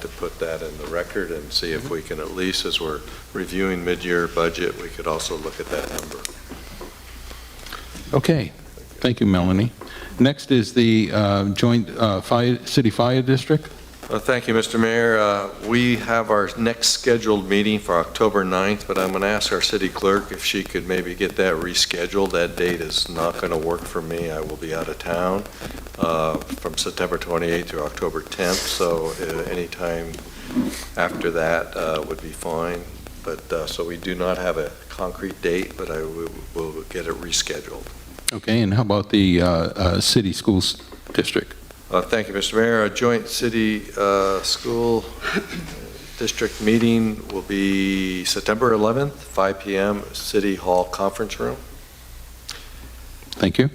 to put that in the record and see if we can at least, as we're reviewing mid-year budget, we could also look at that number. Okay, thank you, Melanie. Next is the uh, joint uh, fire, city fire district. Uh, Thank you, Mr. Mayor. Uh, We have our next scheduled meeting for October 9th, but I'm going to ask our city clerk if she could maybe get that rescheduled. That date is not going to work for me. I will be out of town uh, from September 28th through October 10th, so uh, anytime after that uh, would be fine. But, uh, so we do not have a concrete date, but I will will get it rescheduled. Okay, and how about the uh, uh, city schools district? Uh, Thank you, Mr. Mayor. A joint city uh, school district meeting will be September 11th, 5 PM, City Hall Conference Room. Thank you.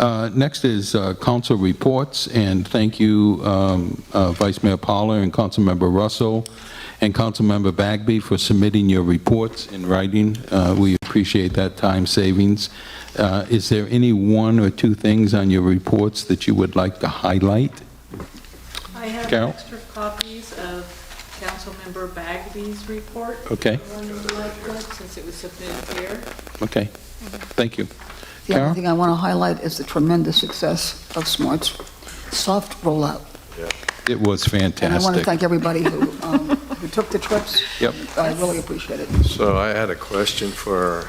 Uh, Next is uh, council reports, and thank you, um, uh, Vice Mayor Pollard and Councilmember Russell and Councilmember Bagby for submitting your reports in writing. Uh, We appreciate that time savings. Uh, Is there any one or two things on your reports that you would like to highlight? I have Carol? extra copies of Councilmember Bagby's report. Okay. The one you like, like, Since it was submitted here. Okay, thank you. The Karen? other thing I want to highlight is the tremendous success of Smart's soft rollout. It was fantastic. And I want to thank everybody who um, who took the trips. Yep. I really appreciate it. So I had a question for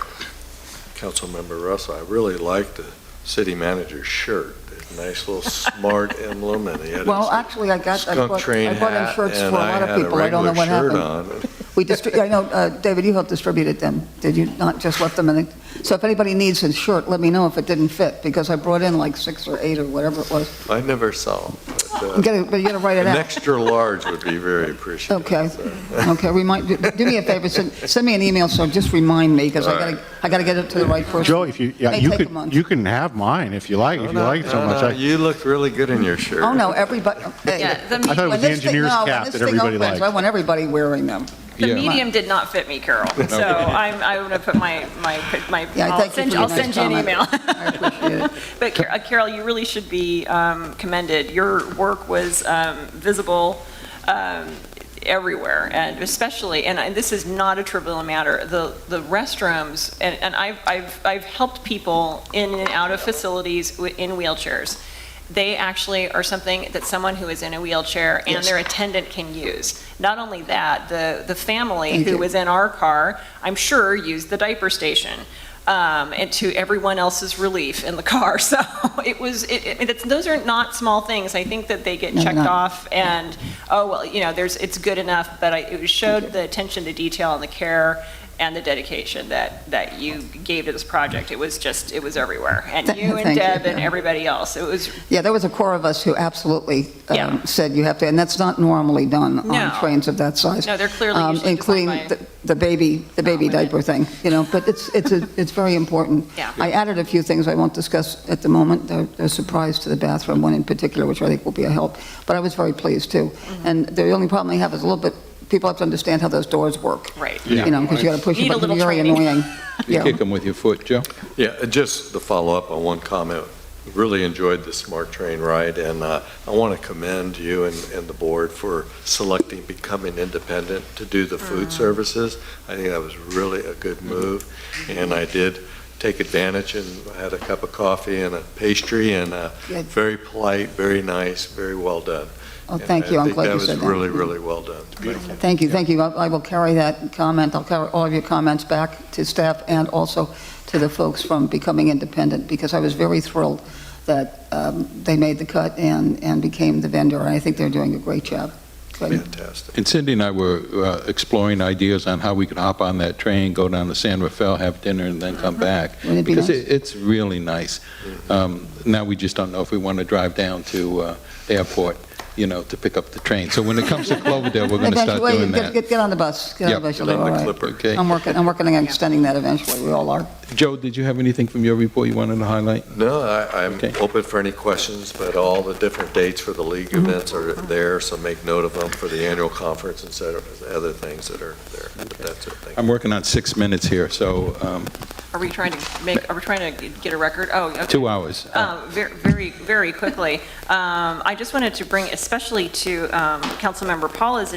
Councilmember Russell. I really liked the city manager's shirt. That Nice little smart emblem, and he had Well, his actually, I got, I skunk bought train I bought in hat, shirts for a and I lot of had a people. I don't regular know what shirt happened. on. We distri, I know, uh, David, you helped distribute them, did you not just let them in? it? So if anybody needs a shirt, let me know if it didn't fit, because I brought in like six or eight or whatever it was. I never saw him. but, uh, You gotta, but you gotta write it An out. extra large would be very appreciated. Okay. so. Okay, remind, do- do me a favor, send, send me an email, so just remind me, because I gotta, I gotta get it to the right person. Joe, if you, yeah, May you take a could, month. you can have mine if you like, if you like it so No, much. no, I- You look really good in your shirt. Oh, no, everybody, hey. Yeah, the, I thought it me- was When the this thing, engineer's no, when cap this that thing everybody opens, I liked. want everybody wearing them. Yeah. the medium did not fit me, Carol. So I'm, I'm gonna put my, my, my, Yeah, I I'll thank you for send, you- your I'll nice send you an comment. email. I appreciate it. But Car- uh, Carol, you really should be um, commended. Your work was um, visible um, everywhere, and especially, and I- this is not a trivial matter, the, the restrooms, and, and I've, I've, I've helped people in and out of facilities wi- in wheelchairs. They actually are something that someone who is in a wheelchair and Yes. their attendant can use. Not only that, the, the family Thank who you. was in our car, I'm sure, used the diaper station um, and to everyone else's relief in the car. So it was, it, it, it's, those are not small things. I think that they get No, they're checked not. off and, oh, well, you know, there's, it's good enough, but I, it Thank you. showed the attention to detail and the care and the dedication that, that you gave to this project. It was just, it was everywhere. And Th- you and thank you, Deb and yeah. everybody else. It was, Yeah, there was a core of us who absolutely um, Yeah. said you have to, and that's not normally done No. on trains of that size. No, they're clearly Um, usually designed Including by- Oh, the- the baby, the baby women. diaper thing, you know, but it's, it's, a- it's very important. Yeah. I added a few things I won't discuss at the moment, They're they're a surprise to the bathroom, one in particular, which I think will be a help, but I was very pleased too. Mm-hmm. And the only problem I have is a little bit, people have to understand how those doors work. right. You know, because you got to push Need it, a but little it's very training. annoying. You Yeah. kick them with your foot, Joe? Yeah, uh, just to follow up on one comment, really enjoyed the Smart Train ride, and uh, I want to commend you and, and the board for selecting Becoming Independent to do the Mm. food services. I think that was really a good move, and I did take advantage and had a cup of coffee and a pastry, and uh, Good. very polite, very nice, very well done. Oh, thank you, I'm glad you said And I think that was that. Mm-hmm. really, really well done. Thank you. Thank you, thank you. I I will carry that comment, I'll carry all of your comments back to staff and also to the folks from Becoming Independent, because I was very thrilled that um, they made the cut and, and became the vendor, and I think they're doing a great job. Good. Fantastic. And Cindy and I were uh, exploring ideas on how we could hop on that train, go down to San Rafael, have dinner, and then come back. Wouldn't it Mm-hmm. be Because nice? it- it's really nice. Um, Now, we just don't know if we want to drive down to uh, airport, you know, to pick up the train. So when it comes to Cloverdale, we're going to start Eventually, doing get- that. Get, get on the bus, get on the Yep. bus, you'll Get do on the all right. clipper. Okay. I'm working, I'm working on extending that eventually, we all are. Joe, did you have anything from your report you wanted to highlight? No, I, I'm Okay. open for any questions, but all the different dates for the league events are there, so make note of them for the annual conference and set of other things that are there. But that's it, thank you. I'm working on six minutes here, so um, Are we trying to make, are we trying to get a record? Oh, okay. two hours. Um, ver- Very, very quickly, Um, I just wanted to bring especially to um, Councilmember Paula's